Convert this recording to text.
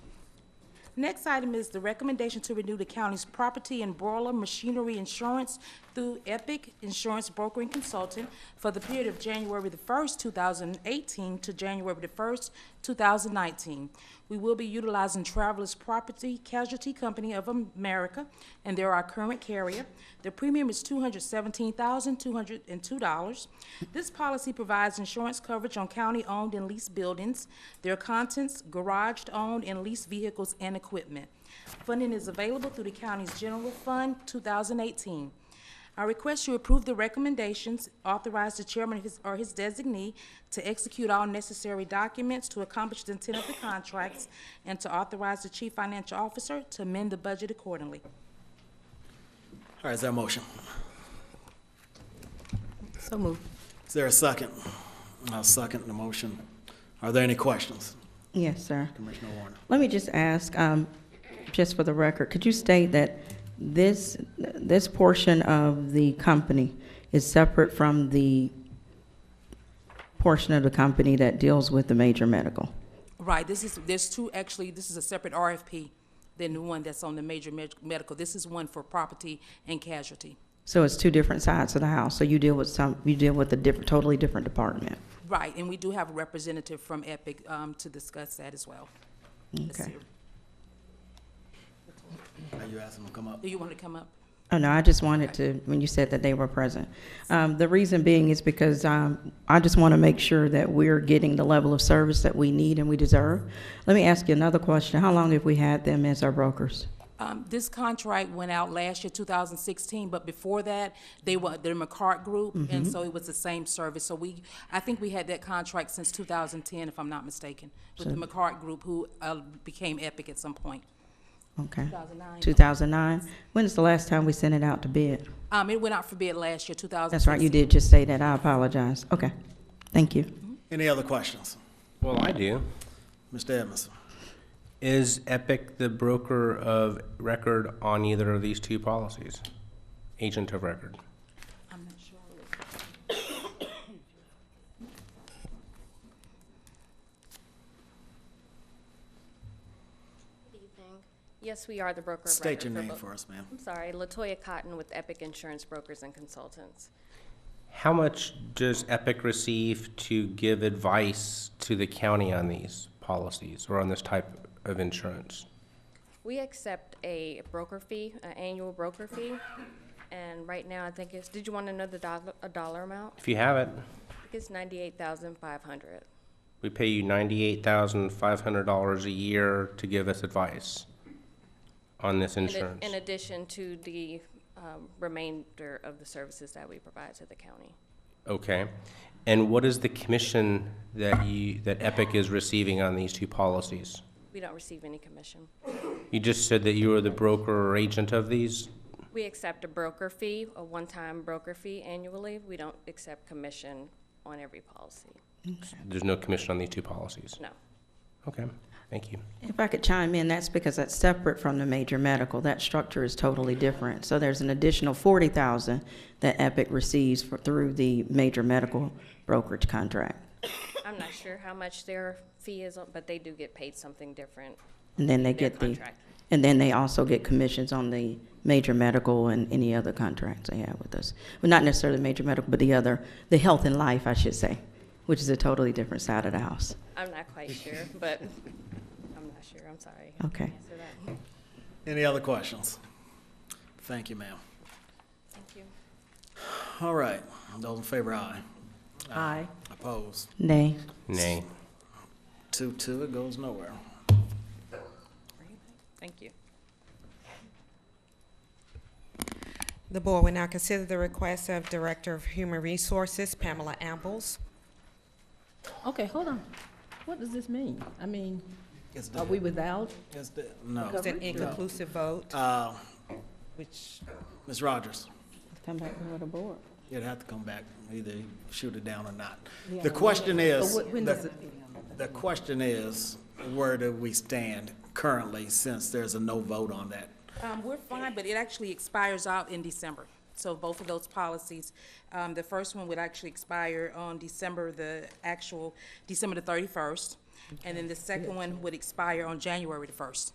Next item is the recommendation to renew the county's property and boiler machinery insurance through Epic Insurance Brokering Consultant for the period of January the 1st, 2018 to January the 1st, 2019. We will be utilizing Travelers Property Casualty Company of America, and they're our current carrier. The premium is $217,202. This policy provides insurance coverage on county-owned and leased buildings, their contents, garaged-owned and leased vehicles and equipment. Funding is available through the county's General Fund 2018. I request you approve the recommendations, authorize the chairman of his- or his designee to execute all necessary documents to accomplish the intent of the contracts, and to authorize the chief financial officer to amend the budget accordingly. All right, is there a motion? So moved. Is there a second? I'll second the motion. Are there any questions? Yes, sir. Commissioner Warner. Let me just ask, um, just for the record, could you state that this, this portion of the company is separate from the portion of the company that deals with the major medical? Right, this is, there's two, actually, this is a separate RFP than the one that's on the major med- medical. This is one for property and casualty. So it's two different sides of the house, so you deal with some, you deal with a different, totally different department? Right, and we do have a representative from Epic um, to discuss that as well. Let's Okay. see. Are you asking them to come up? Do you want to come up? Oh, no, I just wanted to, when you said that they were present. Um, the reason being is because, um, I just want to make sure that we're getting the level of service that we need and we deserve. Let me ask you another question. How long have we had them as our brokers? Um, This contract went out last year, 2016, but before that, they were, the McCart Group, Mm-hmm. and so it was the same service. So we, I think we had that contract since 2010, if I'm not mistaken, with the McCart Group, who uh, became Epic at some point. Okay. 2009. Two thousand nine? When is the last time we sent it out to bid? Um, It went out for bid last year, 2016. That's right, you did just say that. I apologize. Okay. Thank you. Any other questions? Well, I do. Mr. Edmondson. Is Epic the broker of record on either of these two policies? Agent of record? I'm not sure. Good evening. Yes, we are the broker of record. State your name both- for us, ma'am. I'm sorry, Latoya Cotton with Epic Insurance Brokers and Consultants. How much does Epic receive to give advice to the county on these policies or on this type of insurance? We accept a broker fee, an annual broker fee, and right now, I think it's, did you want to know the dollar, a dollar amount? If you have it, I think it's ninety-eight thousand five hundred. we pay you ninety-eight thousand five hundred dollars a year to give us advice on this insurance. In addition to the um, remainder of the services that we provide to the county. Okay. And what is the commission that you, that Epic is receiving on these two policies? We don't receive any commission. You just said that you are the broker or agent of these? We accept a broker fee, a one-time broker fee annually. We don't accept commission on every policy, There's no commission on these two policies? no. Okay, thank you. If I could chime in, that's because that's separate from the major medical. That structure is totally different. So there's an additional forty thousand that Epic receives for, through the major medical brokerage contract. I'm not sure how much their fee is, but they do get paid something different. And then they Their get the, contract. and then they also get commissions on the major medical and any other contracts they have with us. Well, not necessarily major medical, but the other, the health and life, I should say, which is a totally different side of the house. I'm not quite sure, but I'm not sure, I'm sorry. I can't Okay. Answer that. Any other questions? Thank you, ma'am. Thank you. All right, those in favor, aye. Aye. Opposed? Nay. Nay. Two, two, it goes nowhere. Thank you. The board will now consider the request of Director of Human Resources Pamela Ambles. Okay, hold on. What does this mean? I mean, It's are dead. we without? It's dead. No. It's an inconclusive vote, Uh, which Ms. Rogers, Come back before the board. you'd have to come back, either shoot it down or not. The question is, But wh- when the- does it- the question is, where do we stand currently, since there's a no vote on that? Um, we're fine, but it actually expires out in December. So both of those policies, um, the first one would actually expire on December, the actual, December the thirty-first. And then the second one would expire on January the first.